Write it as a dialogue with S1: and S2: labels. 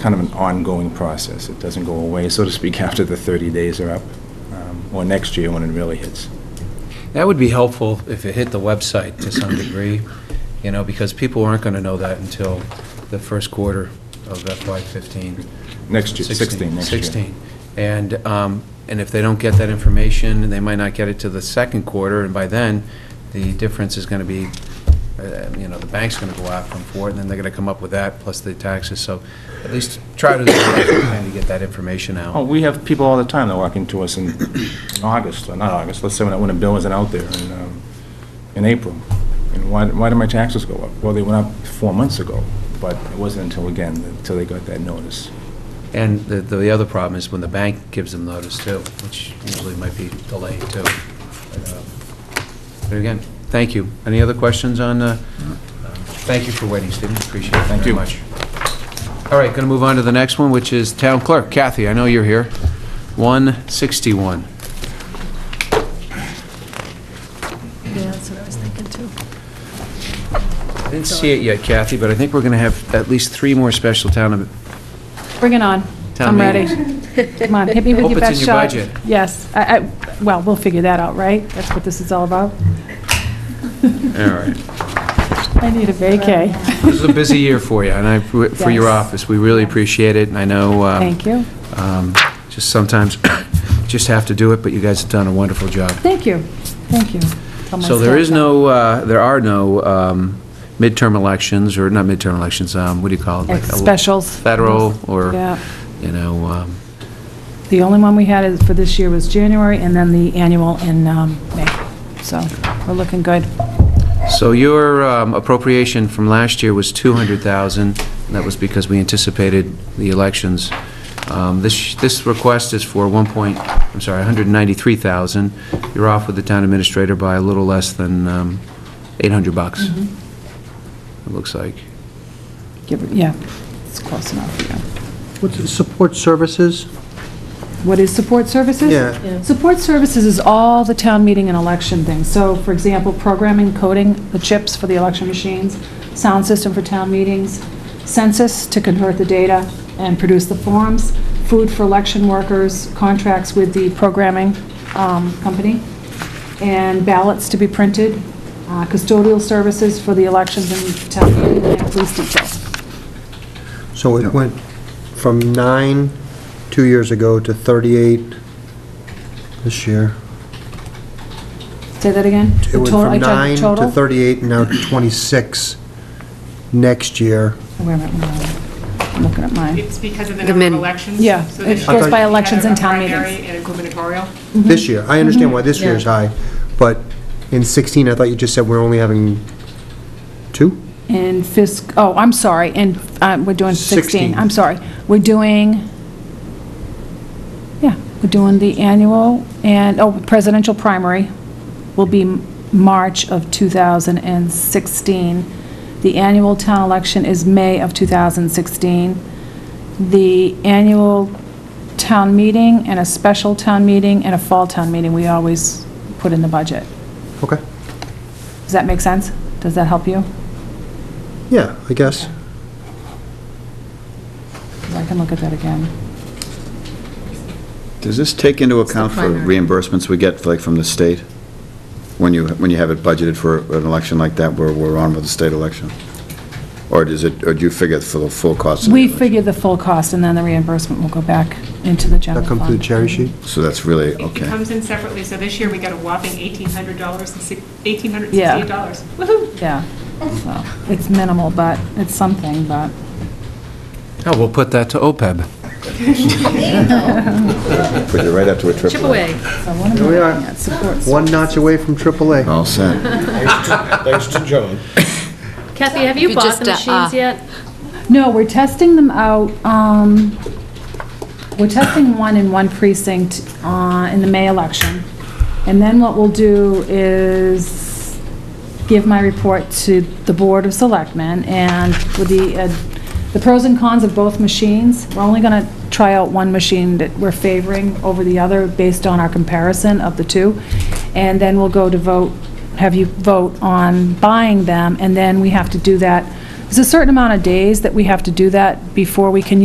S1: kind of an ongoing process. It doesn't go away, so to speak, after the 30 days are up, um, or next year when it really hits.
S2: That would be helpful if it hit the website to some degree, you know, because people aren't going to know that until the first quarter of FY '15.
S1: Next year, 16, next year.
S2: 16. And, um, and if they don't get that information, they might not get it to the second quarter, and by then, the difference is going to be, uh, you know, the bank's going to go after them for it, and then they're going to come up with that, plus the taxes, so at least try to, kind of get that information
S1: Oh,
S2: out.
S1: we have people all the time that walk into us in in August, or not August, let's say when when a bill isn't out there, in, um, in April. And why, why did my taxes go up? Well, they went up four months ago, but it wasn't until, again, until they got that notice.
S2: And the, the other problem is when the bank gives them notice too, which usually might be delayed too. But, uh, But again, thank you. Any other questions on, uh, uh, thank you for waiting, Stephen, appreciate it, thank you very much. All right, going to move on to the next one, which is Town Clerk. Kathy, I know you're here. 161.
S3: Yeah, that's what I was thinking too.
S2: I didn't see it yet, Kathy, but I think we're going to have at least three more special town,
S3: Bring it on.
S2: town
S3: I'm ready.
S2: meetings.
S3: Come on, hit me with
S2: Hope
S3: your
S2: it's in
S3: best
S2: your
S3: shot.
S2: budget.
S3: Yes. I, I, well, we'll figure that out, right? That's what this is all about.
S2: All right.
S3: I need a vacay.
S2: This is a busy year for you, and I, for your
S3: Yes.
S2: office. We really appreciate it, and I know. um,
S3: Thank you.
S2: um, Just sometimes, just have to do it, but you guys have done a wonderful job.
S3: Thank you. Thank you. Tell my
S2: So there
S3: staff
S2: is
S3: that.
S2: no, uh, there are no um, midterm elections, or not midterm elections, um, what do you call it?
S3: Like
S2: Like a-
S3: Specials.
S2: Federal, or,
S3: Yeah.
S2: you know, um,
S3: The only one we had is- for this year was January, and then the annual in um, May. So we're looking good.
S2: so your um, appropriation from last year was 200,000, and that was because we anticipated the elections. Um, This, this request is for 1 point, I'm sorry, 193,000. You're off with the town administrator by a little less than um, 800 bucks, it looks like.
S3: Give it- Yeah, it's close enough, yeah.
S4: What's it, support services?
S3: What is support services?
S4: Yeah.
S3: Support services is all the town meeting and election things. So, for example, programming, coding, the chips for the election machines, sound system for town meetings, census to convert the data and produce the forms, food for election workers, contracts with the programming um, company, and ballots to be printed, uh, custodial services for the elections and town meeting, and police detail.
S4: So it went from nine, two years ago, to 38 this year.
S3: Say that again?
S4: It went
S3: Total- I
S4: from
S3: tried
S4: nine to
S3: total?
S4: 38, and now 26 next year.
S3: Wait a minute, wait a minute. I'm looking at mine.
S5: It's because of the number of
S6: min-
S5: elections.
S3: Yeah,
S5: so
S3: it
S5: they-
S3: goes
S4: by
S5: they had a
S3: elections and town meetings.
S5: Primary and a gubernatorial.
S4: This year, I understand why this
S6: Yeah.
S4: year's high, but in 16, I thought you just said we're only having two?
S3: And fisc, oh, I'm sorry, and uh, we're doing 16.
S4: Sixteen.
S3: I'm sorry. We're doing, yeah, we're doing the annual, and, oh, presidential primary will be M- March of 2016. The annual town election is May of 2016. The annual town meeting and a special town meeting and a fall town meeting, we always put in the budget.
S4: Okay,
S3: Does that make sense? Does that help you?
S4: yeah, I guess.
S3: I can look at that again.
S7: Does this take into
S6: the
S7: account for
S6: primary.
S7: reimbursements we get, like, from the state? When you, when you have it budgeted for an election like that, where we're on with the state election? Or does it, or do you figure for the full cost? of the
S3: We
S7: election?
S3: figure the full cost, and then the reimbursement will go back into the general
S4: That come through the
S3: fund.
S4: cherry sheet?
S7: So that's really,
S5: It
S7: okay.
S5: comes in separately, so this year we got a whopping $1,800 and six-
S3: Yeah.
S5: $1,868. Woohoo!
S3: Yeah. So, It's minimal, but it's something, but,
S2: Oh, we'll put that to OPEB.
S7: Put you right up to a
S6: Chip
S7: triple.
S6: away.
S3: so what am
S4: Here
S3: I
S4: we are.
S3: looking at? Support
S4: One notch away from AAA.
S7: All set.
S6: Kathy, have you
S8: You
S6: bought
S8: just,
S6: the
S8: uh, uh,
S6: machines yet?
S3: No, we're testing them out, um, we're testing one in one precinct, uh, in the May election. And then what we'll do is give my report to the Board of Selectmen and with the, uh, the pros and cons of both machines. We're only gonna try out one machine that we're favoring over the other based on our comparison of the two. And then we'll go to vote, have you vote on buying them, and then we have to do that. There's a certain amount of days that we have to do that before we can